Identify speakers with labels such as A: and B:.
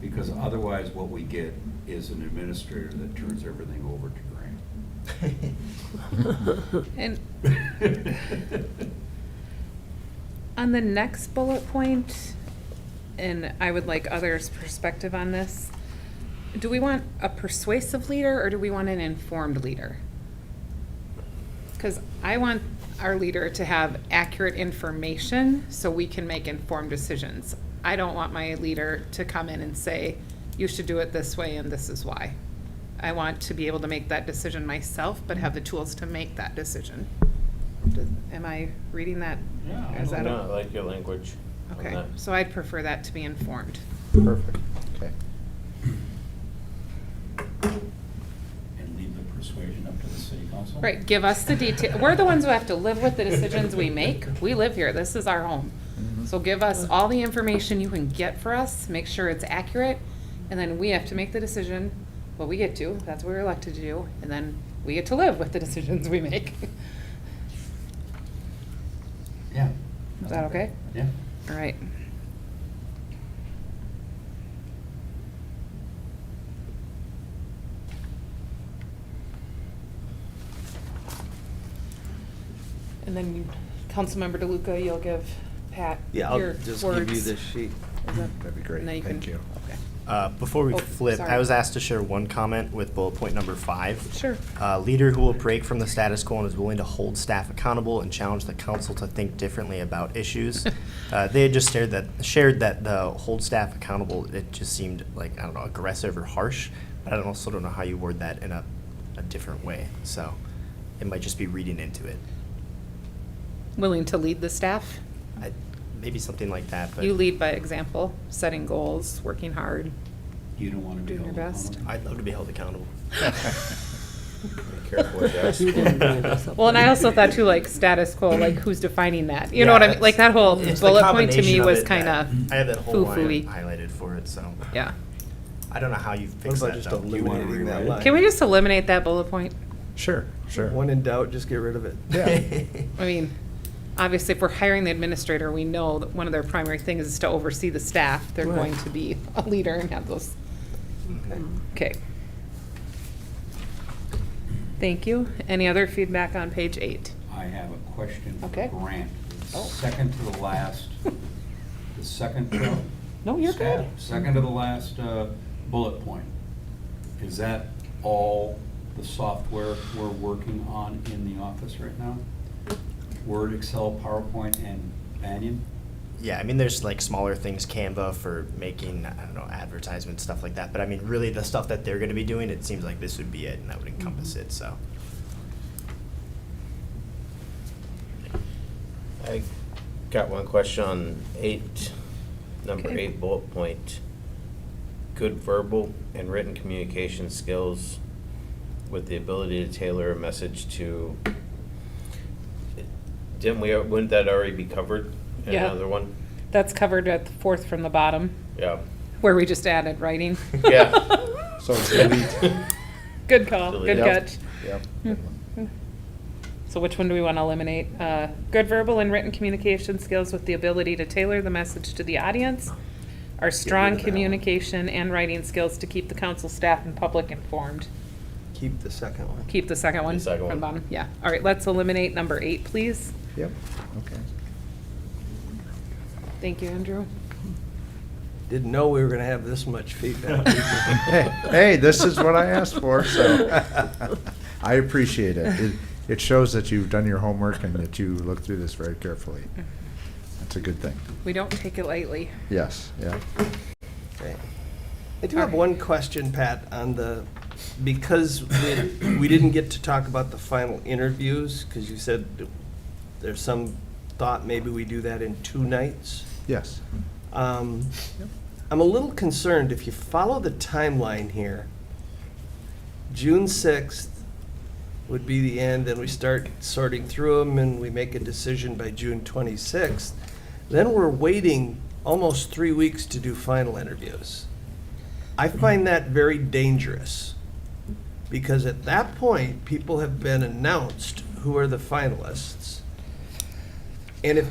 A: Because otherwise, what we get is an administrator that turns everything over to
B: And
A: Grant.
B: on the next bullet point, and I would like others' perspective on this, do we want a persuasive leader or do we want an informed leader? Because I want our leader to have accurate information so we can make informed decisions. I don't want my leader to come in and say, you should do it this way and this is why. I want to be able to make that decision myself, but have the tools to make that decision. Does- Am I reading that?
A: Yeah, I
B: Is that
C: No,
B: a-
C: I like your language on
B: Okay,
C: that.
B: so I'd prefer that to be informed.
C: Perfect.
D: Okay.
A: And leave the persuasion up to the city council?
B: Right, give us the detail, we're the ones who have to live with the decisions we make. We live here, this is our home.
C: Mm-hmm.
B: So give us all the information you can get for us, make sure it's accurate, and then we have to make the decision, what we get to, that's what we're elected to do, and then we get to live with the decisions we make.
A: Yeah.
B: Is that okay?
A: Yeah.
B: All right. And then, you- Councilmember DeLuca, you'll give Pat
E: Yeah,
B: your
E: I'll just give you
B: words.
E: this sheet.
B: Is that-
E: That'd
B: and
E: be
B: then
E: great.
B: can-
D: thank you.
B: Okay.
F: Uh, Before we
B: Oh,
F: flip,
B: sorry.
F: I was asked to share one comment with bullet point number five.
B: Sure.
F: A leader who will break from the status quo and is willing to hold staff accountable and challenge the council to think differently about issues. Uh, They had just shared that, shared that the hold staff accountable, it just seemed like, I don't know, aggressive or harsh. But I don't- also don't know how you word that in a, a different way, so it might just be reading into it.
B: Willing to lead the staff?
F: I- Maybe something like that, but.
B: You lead by example, setting goals, working hard.
A: You don't want to be
B: Doing
A: held
B: your best.
A: accountable?
F: I'd love to be held accountable.
D: Careful with that.
E: You didn't bring
F: this up.
B: Well, and I also thought too, like status quo, like who's defining that? You know
F: Yeah,
B: what I mean?
F: that's-
B: Like that whole
F: it's the
B: bullet point to me
F: combination of
B: was
F: it that-
B: kind of,
F: I have that whole line
B: foo-foo-y.
F: highlighted for it, so.
B: yeah.
F: I don't know how you fix
E: about
F: that
E: just
F: though.
A: You want to
E: eliminating that
A: rewrite it?
E: line?
B: Can we just eliminate that bullet point?
F: Sure,
E: When in doubt, just get rid of it.
D: Yeah.
B: I mean, obviously, if we're hiring the administrator, we know that one of their primary things is to oversee the staff. They're
E: Right.
B: going to be a leader and have those,
E: Okay.
B: okay. Thank you. Any other feedback on page eight?
A: I have a question for
B: Okay.
A: Grant. It's
B: Oh.
A: Second to the last, the second. to-
B: No, you're good.
A: Second to the last uh, bullet point. Is that all the software we're working on in the office right now? Word, Excel, PowerPoint, and Banyan?
F: Yeah, I mean, there's like smaller things, Canva for making, I don't know, advertisements, stuff like that. But I mean, really the stuff that they're gonna be doing, it seems like this would be it and that would encompass
B: Mm-hmm.
F: it, so.
C: I got one question on eight, number
B: Okay.
C: eight bullet point. Good verbal and written communication skills with the ability to tailor a message to. Didn't we, wouldn't that already be covered in
B: Yeah.
C: another one?
B: That's covered at the fourth from the bottom,
C: Yeah.
B: where we just added writing.
C: Yeah.
D: So delete.
B: Good call, good
C: Delete. Yep.
B: catch. Mm-hmm.
D: Yep.
B: So which one do we want to eliminate? Uh, Good verbal and written communication skills with the ability to tailor the message to the audience. Our strong communication and writing skills to keep the council staff and public informed.
E: Keep the second one.
B: Keep the second one
C: The second
B: from
C: one.
B: bottom, yeah. All right, let's eliminate number eight, please.
D: Yep, okay.
B: Thank you, Andrew.
E: Didn't know we were gonna have this much feedback.
D: Hey, hey, this is what I asked for, so I appreciate it. It- It shows that you've done your homework and that you looked through this very carefully. That's a good thing.
B: We don't take it lightly.
D: Yes, yeah.
E: Okay. I do have one question, Pat, on the, because we, we didn't get to talk about the final interviews, because you said there's some thought maybe we do that in two nights.
D: Yes.
E: Um,
D: Yep.
E: I'm a little concerned, if you follow the timeline here, June sixth would be the end, then we start sorting through them, and we make a decision by June twenty-sixth. Then we're waiting almost three weeks to do final interviews. I find that very dangerous, because at that point, people have been announced who are the finalists. And if